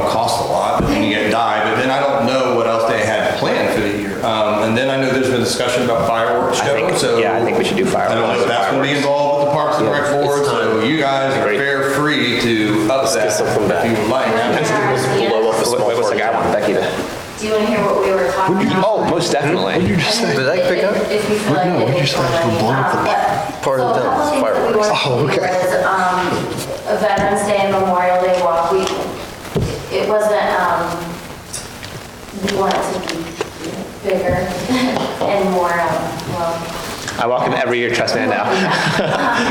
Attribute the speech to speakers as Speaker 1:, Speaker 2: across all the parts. Speaker 1: Um,
Speaker 2: Do you want to hear what we were talking about?
Speaker 3: Oh, most
Speaker 4: What did
Speaker 3: definitely.
Speaker 4: you just say?
Speaker 5: Did I pick up?
Speaker 2: If you feel
Speaker 4: What-
Speaker 2: like
Speaker 4: no,
Speaker 2: it
Speaker 4: what'd you
Speaker 2: is
Speaker 4: say? It's
Speaker 2: already,
Speaker 4: gonna blow up the
Speaker 2: um, but-
Speaker 5: part of
Speaker 2: so a
Speaker 5: the
Speaker 2: couple things that we
Speaker 5: fireworks.
Speaker 2: wanted to
Speaker 4: Oh,
Speaker 2: do
Speaker 4: okay.
Speaker 2: was, um, a Veterans Day and Memorial Day walk, we, it wasn't, um, we want it to be bigger and more, um, well,
Speaker 3: I walk him every year, trust me, I know.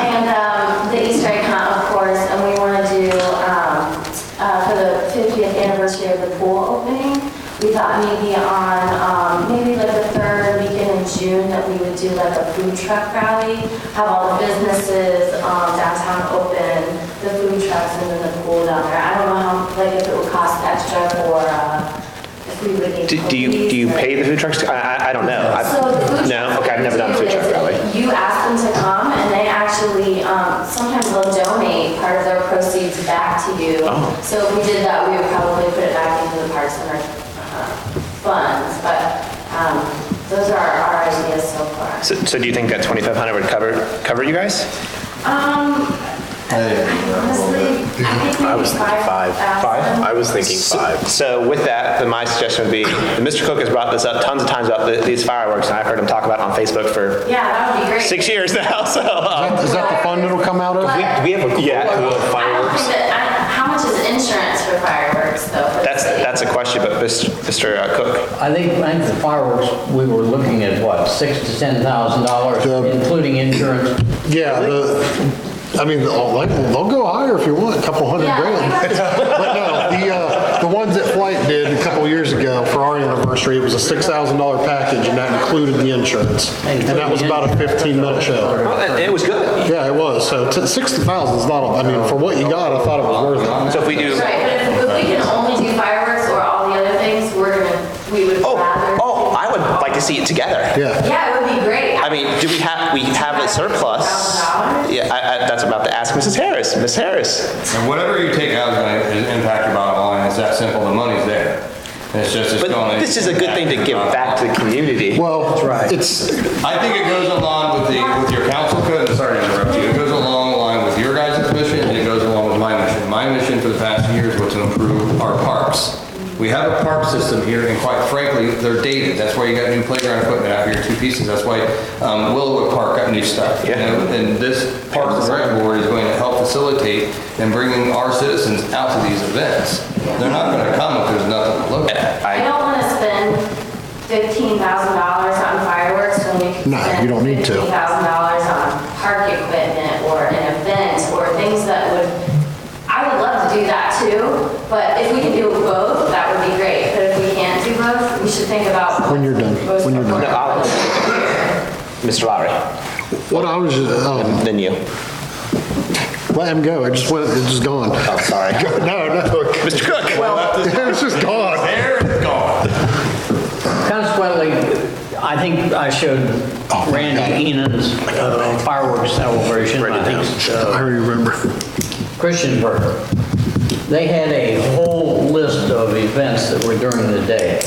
Speaker 2: and um, the Easter egg hunt, of course, and we want to do, um, uh, for the 50th anniversary of the pool opening, we thought maybe on, um, maybe like the third weekend in June, that we would do like a food truck rally, have all the businesses um, downtown open, the food trucks, and then the pool down there. I don't know how, like, if it would cost extra or uh, if we would need.
Speaker 3: Do do you, do you
Speaker 2: police or-
Speaker 3: pay the food trucks? I, I, I don't know. I-
Speaker 2: so the food
Speaker 3: No,
Speaker 2: truck
Speaker 3: okay, I've never done a
Speaker 2: too
Speaker 3: food truck
Speaker 2: is
Speaker 3: rally.
Speaker 2: You ask them to come, and they actually, um, sometimes they'll donate part of their proceeds back to you.
Speaker 3: Oh.
Speaker 2: So if we did that, we would probably put it back into the Parks and Rec uh, funds, but um, those are our ideas so far.
Speaker 3: So, so do you think that 2,500 would cover, cover you guys?
Speaker 2: Um, honestly, I think
Speaker 5: I
Speaker 2: maybe
Speaker 5: was thinking five.
Speaker 2: five thousand.
Speaker 5: I was thinking five.
Speaker 3: So with that, then my suggestion would be, and Mr. Cook has brought this up tons of times about th- these fireworks, and I've heard him talk about it on Facebook for
Speaker 2: Yeah, that would be great.
Speaker 3: six years now, so. um,
Speaker 4: Is that the fund it'll come out of?
Speaker 2: But-
Speaker 3: we have a Yeah,
Speaker 2: I don't think that, I don't- how much is insurance for fireworks, though? for the
Speaker 3: that's,
Speaker 2: city?
Speaker 3: that's a question, but Mr. Cook,
Speaker 6: I think, I think the fireworks, we were looking at what, six to ten thousand dollars,
Speaker 4: The-
Speaker 6: including insurance.
Speaker 4: Yeah, the, I mean, they'll, like, they'll go higher if you want, a couple hundred
Speaker 2: Yeah.
Speaker 4: grand. But no, the, uh, the ones that Flight did a couple years ago for our anniversary, it was a six thousand dollar package and that included the insurance. And that was about a fifteen minute show.
Speaker 3: it was good.
Speaker 4: Yeah, it was. So t- sixty thousand is not, I mean, for what you got, I thought it was worth it.
Speaker 3: So if we do,
Speaker 2: Right, but if, if we can only do fireworks or all the other things, we're gonna, we would
Speaker 3: oh,
Speaker 2: rather.
Speaker 3: oh, I would like to see it together.
Speaker 4: Yeah.
Speaker 2: Yeah, it would be great.
Speaker 3: I mean, do we have, we have a surplus?
Speaker 2: $1,000?
Speaker 3: Yeah, I, I, that's about to ask Mrs. Harris. Miss Harris,
Speaker 1: And whatever you take out is going to impact your bottom line. It's that simple. The money's there. It's just, it's going
Speaker 3: But
Speaker 1: to.
Speaker 3: this is a good thing to give back to the community.
Speaker 4: Well, it's,
Speaker 1: I think it goes along with the, with your council code, sorry to interrupt you, it goes along the line with your guys' mission, and it goes along with my mission. My mission for the past year is what to improve our parks. We have a park system here, and quite frankly, they're dated, that's why you got new playground equipment out here, two pieces, that's why um, Willowwood Park got new stuff. you
Speaker 3: Yeah.
Speaker 1: know? And this Parks and Rec Board is going to help facilitate in bringing our citizens out to these events. They're not gonna come if there's nothing to look at.
Speaker 2: I don't wanna spend fifteen thousand dollars on fireworks when we can
Speaker 4: No, you don't need
Speaker 2: spend
Speaker 4: to.
Speaker 2: fifteen thousand dollars on park equipment or an event or things that would, I would love to do that too, but if we can do both, that would be great. But if we can't do both, we should think about.
Speaker 4: When you're done,
Speaker 2: most
Speaker 4: when you're done.
Speaker 2: of them.
Speaker 3: Mr. Lowry,
Speaker 4: what I was, um,
Speaker 3: then you.
Speaker 4: let him go. It just went, it's just gone.
Speaker 3: Oh, sorry.
Speaker 4: No, no.
Speaker 3: Mr. Cook. Well,
Speaker 4: It's just gone.
Speaker 1: oh, There it's gone.
Speaker 6: Consequently, I think I showed Randy Enan's uh, fireworks celebration. I think it's, uh,
Speaker 4: I remember.
Speaker 6: Christiansburg. They had a whole list of events that were during the day.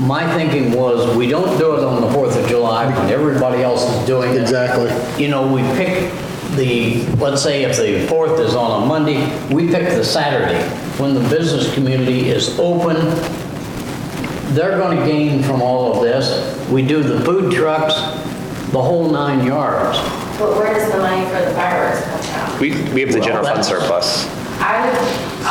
Speaker 6: My thinking was, we don't do it on the 4th of July when everybody else is doing it.
Speaker 4: Exactly.
Speaker 6: You know, we pick the, let's say if the 4th is on a Monday, we pick the Saturday, when the business community is open, they're going to gain from all of this. We do the food trucks, the whole nine yards.
Speaker 2: But where does the money for the fireworks come from?
Speaker 3: we, we have the general fund surplus.
Speaker 2: I would, I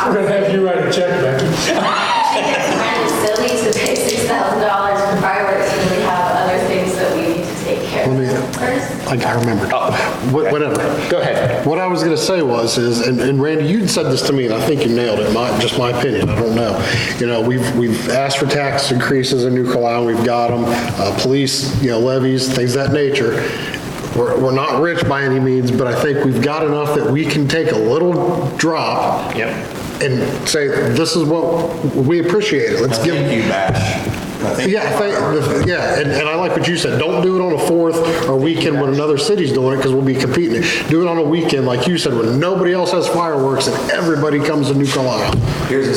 Speaker 7: I'm
Speaker 2: would
Speaker 7: gonna have you write a check, Becky.
Speaker 2: think it's kind of silly to pay six thousand dollars for fireworks when we have other things that we need to take care
Speaker 4: Let me-
Speaker 2: of first.
Speaker 4: Like, I remembered. Wh- Whatever.
Speaker 3: Oh, Go ahead.
Speaker 4: What I was going to say was, is, and and Randy, you'd said this to me, and I think you nailed it, my, just my opinion, I don't know. You know, we've, we've asked for tax increases in New Carlisle, we've got them, uh, police, you know, levies, things of that nature. We're, we're not rich by any means, but I think we've got enough that we can take a little drop.
Speaker 3: Yep.
Speaker 4: And say, this is what, we appreciate it, let's give.
Speaker 1: Thank you, Bash. I think-
Speaker 4: Yeah, I think- yeah, and, and I like what you said, don't do it on a fourth or weekend when another city's doing it, because we'll be competing. Do it on a weekend, like you said, when nobody else has fireworks and everybody comes to New Carlisle.
Speaker 1: Here's a